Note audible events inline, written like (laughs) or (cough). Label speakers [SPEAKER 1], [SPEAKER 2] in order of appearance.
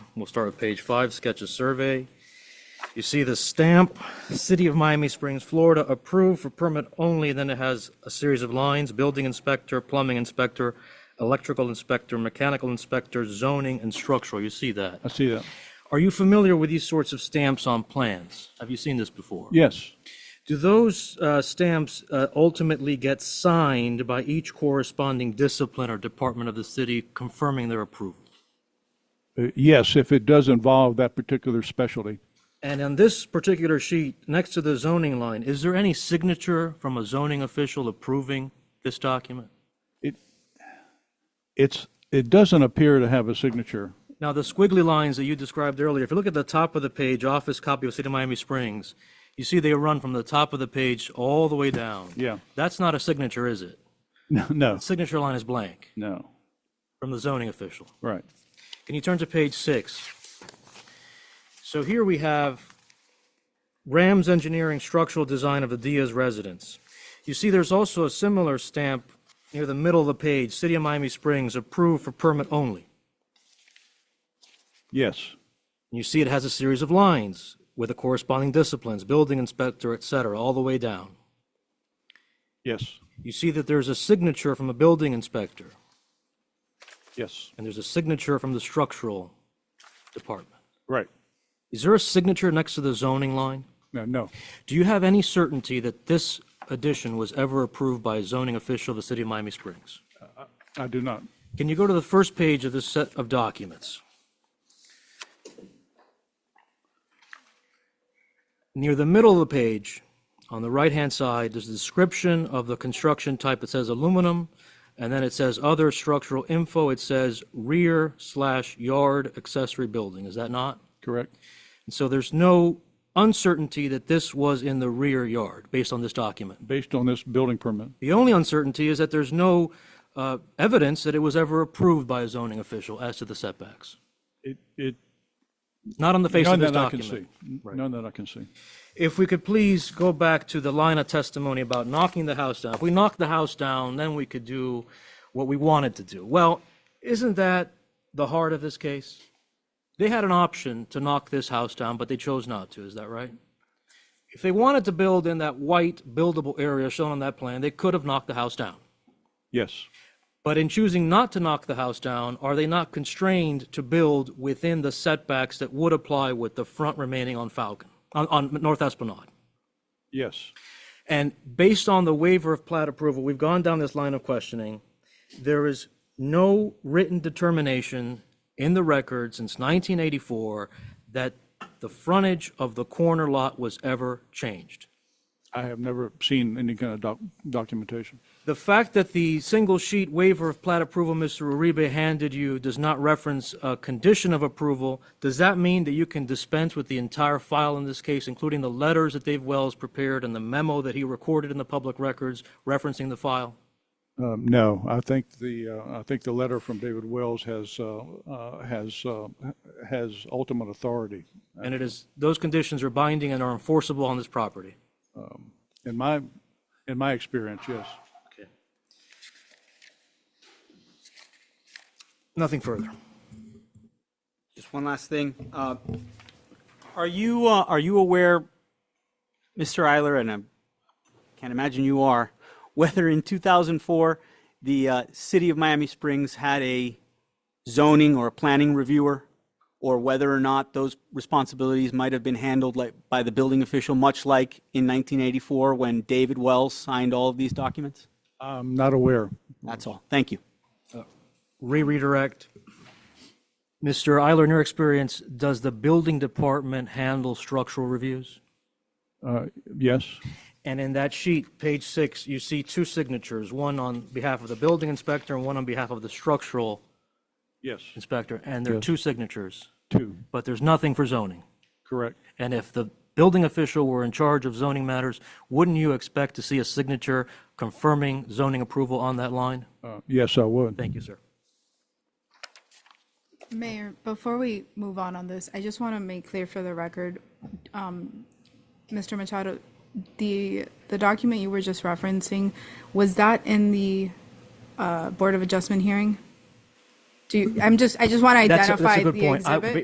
[SPEAKER 1] We'll start with page five, sketch of survey. You see the stamp, City of Miami Springs, Florida, approved for permit only, then it has a series of lines, building inspector, plumbing inspector, electrical inspector, mechanical inspector, zoning, and structural. You see that.
[SPEAKER 2] I see that.
[SPEAKER 1] Are you familiar with these sorts of stamps on plans? Have you seen this before?
[SPEAKER 2] Yes,
[SPEAKER 1] Do those uh, stamps uh, ultimately get signed by each corresponding discipline or department of the city confirming their approval?
[SPEAKER 2] Uh, yes, if it does involve that particular specialty.
[SPEAKER 1] And on this particular sheet, next to the zoning line, is there any signature from a zoning official approving this document?
[SPEAKER 2] It, it's, it doesn't appear to have a signature.
[SPEAKER 1] Now, the squiggly lines that you described earlier, if you look at the top of the page, office copy of City of Miami Springs, you see they run from the top of the page all the way down.
[SPEAKER 2] Yeah. (laughs)
[SPEAKER 1] That's not a signature, is it?
[SPEAKER 2] No, no,
[SPEAKER 1] Signature line is blank
[SPEAKER 2] no,
[SPEAKER 1] from the zoning official.
[SPEAKER 2] right.
[SPEAKER 1] Can you turn to page six? So here we have Rams Engineering Structural Design of the Diaz Residence. You see, there's also a similar stamp near the middle of the page, City of Miami Springs, approved for permit only.
[SPEAKER 2] Yes,
[SPEAKER 1] And you see it has a series of lines with the corresponding disciplines, building inspector, et cetera, all the way down.
[SPEAKER 2] yes,
[SPEAKER 1] You see that there's a signature from a building inspector,
[SPEAKER 2] yes,
[SPEAKER 1] and there's a signature from the structural department.
[SPEAKER 2] right.
[SPEAKER 1] Is there a signature next to the zoning line?
[SPEAKER 2] No, no,
[SPEAKER 1] Do you have any certainty that this addition was ever approved by a zoning official of the city of Miami Springs?
[SPEAKER 2] I do not.
[SPEAKER 1] Can you go to the first page of this set of documents? Near the middle of the page, on the right-hand side, there's a description of the construction type. It says aluminum, and then it says other structural info. It says rear slash yard accessory building. Is that not?
[SPEAKER 2] Correct?
[SPEAKER 1] And so there's no uncertainty that this was in the rear yard based on this document.
[SPEAKER 2] Based on this building permit.
[SPEAKER 1] The only uncertainty is that there's no uh, evidence that it was ever approved by a zoning official as to the setbacks.
[SPEAKER 2] It, it,
[SPEAKER 1] Not on the face
[SPEAKER 2] none
[SPEAKER 1] of this
[SPEAKER 2] that I can see.
[SPEAKER 1] document.
[SPEAKER 2] None that I can see.
[SPEAKER 1] If we could please go back to the line of testimony about knocking the house down. If we knocked the house down, then we could do what we wanted to do. Well, isn't that the heart of this case? They had an option to knock this house down, but they chose not to. Is that right? If they wanted to build in that white buildable area shown on that plan, they could have knocked the house down.
[SPEAKER 2] Yes,
[SPEAKER 1] But in choosing not to knock the house down, are they not constrained to build within the setbacks that would apply with the front remaining on Falcon, on, on North Esplanade?
[SPEAKER 2] yes,
[SPEAKER 1] And based on the waiver of plat approval, we've gone down this line of questioning. There is no written determination in the record since 1984 that the frontage of the corner lot was ever changed.
[SPEAKER 2] I have never seen any kind of doc, documentation.
[SPEAKER 1] The fact that the single sheet waiver of plat approval Mr. Uribe handed you does not reference a condition of approval, does that mean that you can dispense with the entire file in this case, including the letters that Dave Wells prepared and the memo that he recorded in the public records referencing the file?
[SPEAKER 2] Um, no, I think the, uh, I think the letter from David Wells has, uh, uh, has, uh, has ultimate authority.
[SPEAKER 1] And it is, those conditions are binding and are enforceable on this property.
[SPEAKER 2] In my, in my experience, yes.
[SPEAKER 1] Nothing further.
[SPEAKER 3] Just one last thing. Uh, Are you, uh, are you aware, Mr. Eiler, and I can't imagine you are, (laughs) whether in 2004, the uh, city of Miami Springs had a zoning or a planning reviewer? Or whether or not those responsibilities might have been handled like, by the building official, much like in 1984 when David Wells signed all of these documents?
[SPEAKER 2] I'm not aware.
[SPEAKER 3] That's all. Thank you.
[SPEAKER 1] Re-redirect. Mr. Eiler, in your experience, does the building department handle structural reviews?
[SPEAKER 2] Uh, yes,
[SPEAKER 1] And in that sheet, page six, you see two signatures, one on behalf of the building inspector and one on behalf of the structural
[SPEAKER 2] yes,
[SPEAKER 1] inspector, and there are two signatures,
[SPEAKER 2] two,
[SPEAKER 1] but there's nothing for zoning.
[SPEAKER 2] correct.
[SPEAKER 1] And if the building official were in charge of zoning matters, wouldn't you expect to see a signature confirming zoning approval on that line?
[SPEAKER 2] Uh, yes, I would.
[SPEAKER 1] Thank you, sir.
[SPEAKER 4] Mayor, before we move on on this, I just want to make clear for the record, um, Mr. Machado, the, the document you were just referencing, was that in the uh, Board of Adjustment hearing? Do you, I'm just, I just want to
[SPEAKER 1] That's a-
[SPEAKER 4] identify
[SPEAKER 1] That's a good
[SPEAKER 4] the
[SPEAKER 1] point. I-
[SPEAKER 4] exhibit.